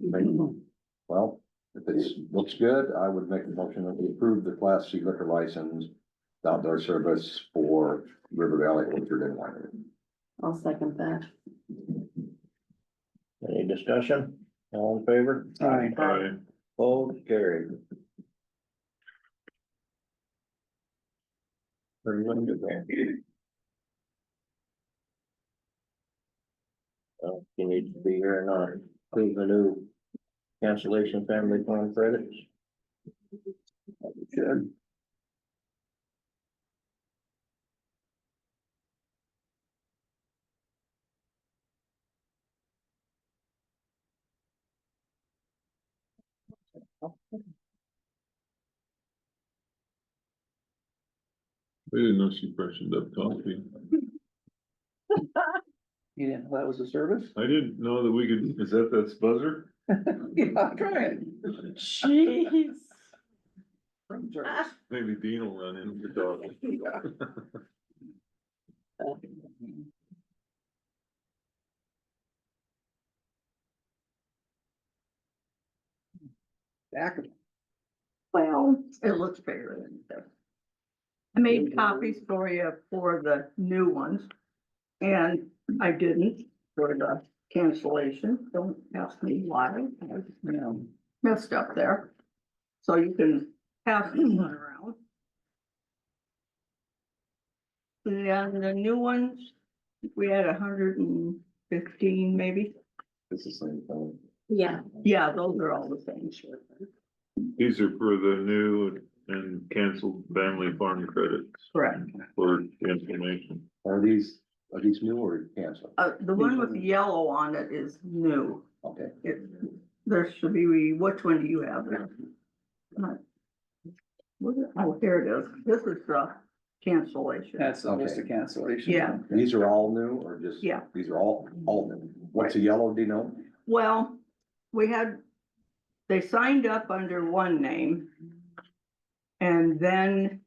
Make- Well, if it's, looks good, I would make a motion that we approve the class C liquor license. Outdoor service for River Valley Orchard and Winery. I'll second that. Any discussion? All in favor? Aye. Aye. Both carried. Very good, man. Well, if Uh, You need to be here or not, approve the new cancellation family plan credits. Good. We didn't know she freshened up coffee. You didn't know that was a service? I didn't know that we could, is that that's buzzer? Yeah, I'm trying. Jeez. Room service. Maybe Dean will run in for dog. Back. Well, It looks bigger than that. I made copies for you for the new ones. And I didn't for the cancellation. Don't ask me why. I No. messed up there. So you can pass this one around. Then the new ones, we had hundred and fifteen maybe. It's the same thing. Yeah. Yeah, those are all the same. These are for the new and canceled family farm credits Correct. for information. Are these, are these new or canceled? Uh, the one with the yellow on it is new. Okay, It, there should be, which one do you have there? Not- what is- Oh, here it is. This is the cancellation. That's almost a cancellation. Yeah. these are all new or just? Yeah. These are all, all new. What's the yellow, do you know? Well, we had, they signed up under one name. And then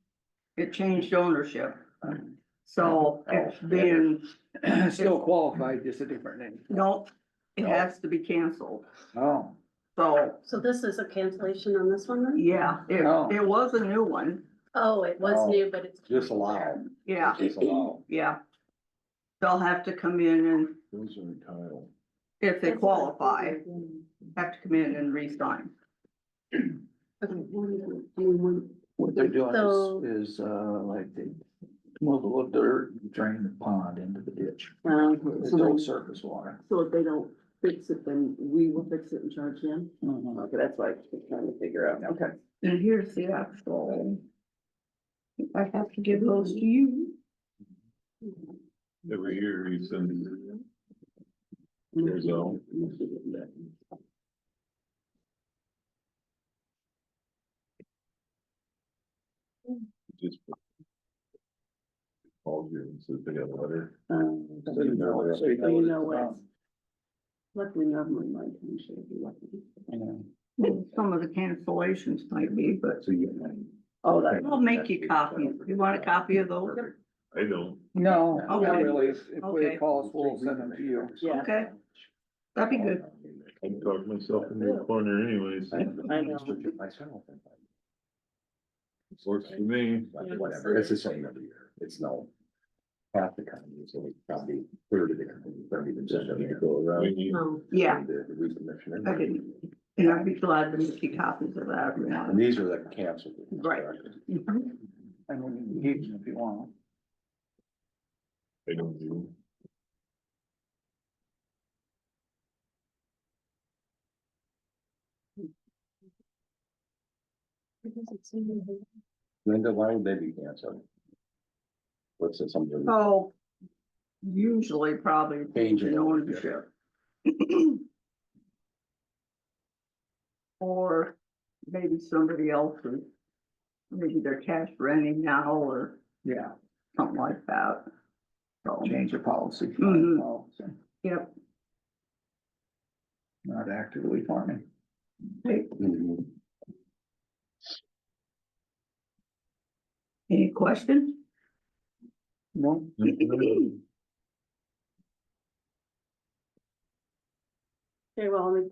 it changed ownership. Oh, So it's being, Still qualified, just a different name. no, it has to be canceled. Oh, So, So this is a cancellation on this one then? yeah, it, Oh. it was a new one. Oh, it Oh. was new, but it's. Just allow. Yeah, Just allow. yeah. They'll have to come in and Those are Kyle. if they That's what I was qualify, thinking. have to come in and re-sign. Okay, one, one, one. what they're doing So- is, is, uh, like they move a little dirt, and drain the pond into the ditch. Um, It's so all then- surface water. so if they don't fix it, then we will fix it and charge them? Okay, that's what I was trying to figure out. Okay. And here's the actual. I have to give those to you. Every year he's in. There's all. Just. Called you and said they got a letter. Um, So you know what- so you You know know what it's what? Luckily, not my mind, I'm sure it'd be lucky. about, you know. Some of the cancellations might be, but So you. Oh, that. I'll make you copies. You want a copy of those? I don't. No, not Okay. really. If if they Okay. call us, we'll send them to you. Yeah. Okay, that'd be good. I talked myself into a corner anyways. I know. Myself. Works for me. But Whatever, it's the same every year, it's no. Half the company, it's only probably thirty to thirty Just percent of need to it. go around. We need- No, Yeah, The the recommissioner. I didn't. and I'd be glad to make you copies of that if you want. And these are the canceled. ones, Right. correct? Mhm. And we can use them if you want. I don't do. Linda, why would they be canceled? What's it, something? So usually probably change in ownership. Or maybe somebody else is, maybe they're cash renting now or Yeah, something like that. So, change your policy. Mhm. Policy. Mm-hmm. yep, Not actively farming. Mhm. any questions? No. Mhm. Very well, I'll make